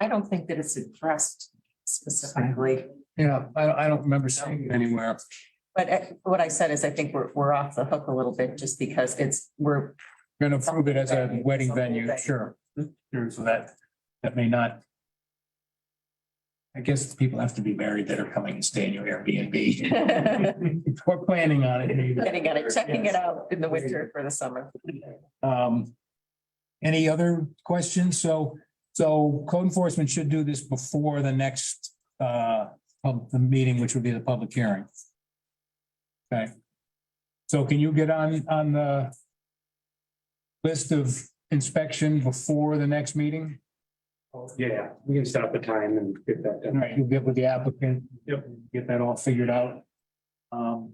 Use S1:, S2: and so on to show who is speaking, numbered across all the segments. S1: I don't think that it's addressed specifically,
S2: Yeah, I, I don't remember seeing it anywhere.
S1: but uh, what I said is I think we're, we're off the hook a little bit just because it's, we're,
S2: Gonna approve it as a wedding venue, sure. Sure, so that, that may not. I guess people have to be married that are coming and staying in your Airbnb.
S1: getting
S2: We're planning on it.
S1: at it, checking it out in the winter for the summer.
S2: Um, any other questions? So, so code enforcement should do this before the next, uh, pub, the meeting, which would be the public hearing. Okay. So can you get on, on the list of inspection before the next meeting?
S3: Yeah, we can set up a time and get that
S2: All
S3: done.
S2: right, you'll get with the applicant.
S3: Yep.
S2: Get that all figured out. Um,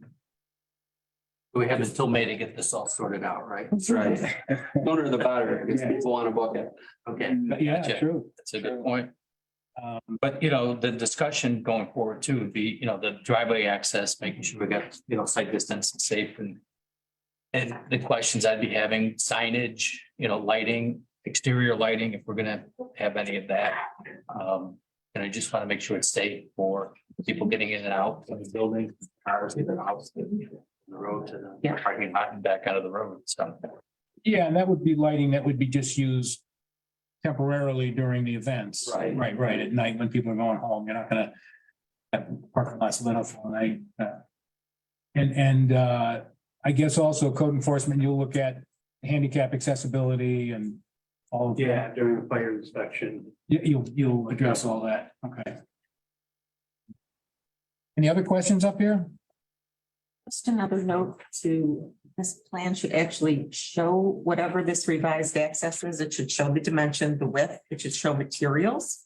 S4: We have until May to get this all sorted out, right?
S5: That's right. Sooner the better, because people want to book it.
S4: Okay,
S2: yeah,
S4: Gotcha.
S2: Mm-hmm. true.
S4: that's a good point.
S2: Um,
S4: But, you know, the discussion going forward too would be, you know, the driveway access, making sure we got, you know, site distance and safe and and the questions I'd be having, signage, you know, lighting, exterior lighting, if we're gonna have any of that. Um, and I just want to make sure it's safe for people getting in and out of the building, cars, either house, the road to the
S1: Yeah.
S4: parking lot and back out of the road, so.
S2: Yeah, and that would be lighting that would be just used temporarily during the events.
S5: Right.
S2: Right, right, at night when people are going home, you're not gonna have parking lots lit up all night. uh, And, and, uh, I guess also code enforcement, you'll look at handicap accessibility and all of that.
S3: Yeah, during the fire inspection.
S2: You, you'll, you'll address all that, okay. Any other questions up here?
S1: Just another note to, this plan should actually show whatever this revised access is. It should show the dimension, the width, it should show materials.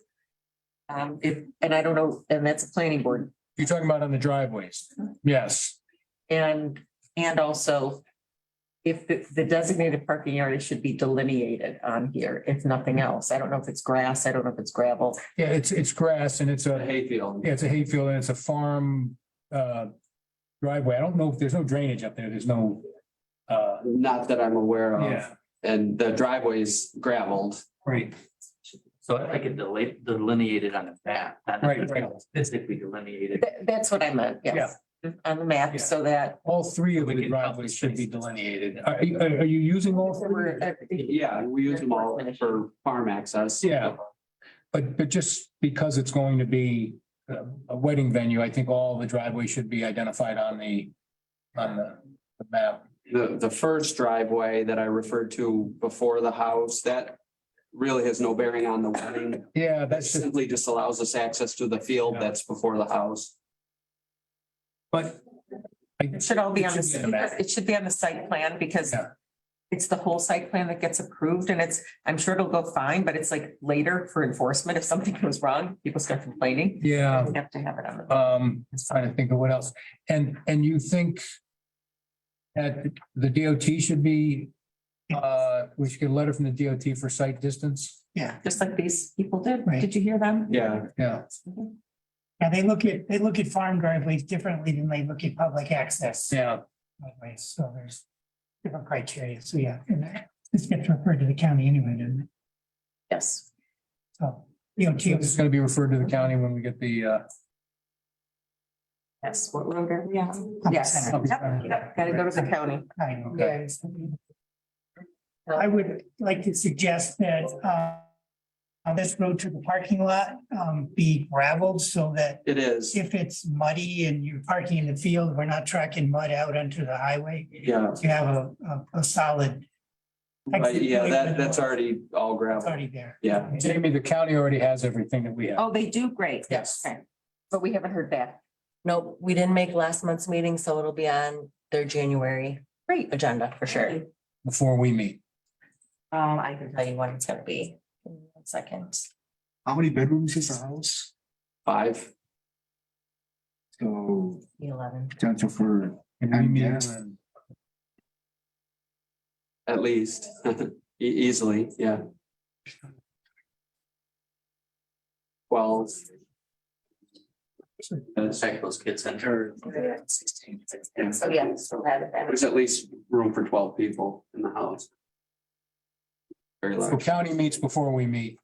S1: Um, if, and I don't know, and that's a planning board
S2: You're talking about on the driveways? Yes.
S1: and, and also. If the- the designated parking area should be delineated on here, if nothing
S2: Mm-hmm.
S1: else. I don't know if it's grass, I don't know if it's gravel.
S2: Yeah, it's, it's grass and it's a.
S5: The Hayfield.
S2: Yeah, it's a hayfield and it's a farm uh driveway. I don't know if there's no drainage up there. There's no uh,
S5: Not that I'm aware of.
S2: yeah,
S5: And the driveway's gravelled.
S2: right.
S4: So I get deli- delineated on the map. not
S2: Right, right.
S4: Physically delineated.
S1: That, that's what I meant, yes. Mm, On the
S2: Yeah.
S1: map, so that.
S2: All three of
S4: We
S2: the
S4: can
S2: driveways should be
S4: help with
S2: delineated.
S4: spaces.
S2: Are you, are are you using all three?
S1: Right,
S5: Yeah, we use them all for farm access.
S2: Yeah. But but just because it's going to be a a wedding venue, I think all the driveways should be identified on the on the the map.
S5: The, the first driveway that I referred to before the house, that really has no bearing on the wedding.
S2: Yeah,
S5: That
S2: that's,
S5: simply just allows us access to the field that's before the house.
S2: but I
S1: It should all be on
S2: It should be on the
S1: the,
S2: map.
S1: it should be on the site plan because
S2: Yeah.
S1: it's the whole site plan that gets approved and it's, I'm sure it'll go fine, but it's like later for enforcement. If something goes wrong, people start complaining.
S2: yeah.
S1: We Have to have it on the.
S2: Um, trying to think of what else. And, and you think that the DOT should be, uh, we should get a letter from the DOT for site distance?
S1: Yeah. Just like these people did.
S6: Right.
S1: Did you hear them?
S5: Yeah,
S2: Yeah,
S6: Yeah, they look at, they look at farm driveways differently than they look at public access
S2: yeah.
S6: driveways, so there's different criteria, so yeah. and This gets referred to the county anyway, doesn't it?
S1: Yes.
S6: So, you know,
S2: So This is gonna be referred to the county when we get the, uh,
S1: Yes, what road are we on? Yes.
S6: Center.
S1: Yep, yep, Gotta go to the county.
S6: I know.
S2: Okay.
S6: I would like to suggest that uh, on this road to the parking lot um, be gravelled so that
S5: it is.
S6: if it's muddy and you're parking in the field, we're not tracking mud out onto the highway.
S5: Yeah,
S6: You have a, a- a solid.
S5: but yeah, that, that's already all
S6: It's
S5: gravel.
S6: already there.
S5: Yeah.
S2: Jamie, the county already has everything that we have.
S7: Oh, they do, great.
S2: Yes.
S7: Okay.
S1: But we haven't heard back.
S7: No, we didn't make last month's meeting, so it'll be on their January
S1: Great.
S7: agenda for sure. Um,
S1: Um,
S2: Before we meet.
S1: I can
S7: Tell you when it's gonna be. in one Second.
S8: How many bedrooms is the house?
S5: Five,
S8: So
S7: the eleven.
S8: potential for,
S2: And we meet
S8: Yes.
S2: when-
S5: at least, E- easily, yeah. Twelve. That's-
S4: Check those kids in.
S5: yeah.
S7: So yeah, so have it then.
S5: There's at least room for twelve people in the house. Very
S2: The
S5: large.
S2: county meets before we meet.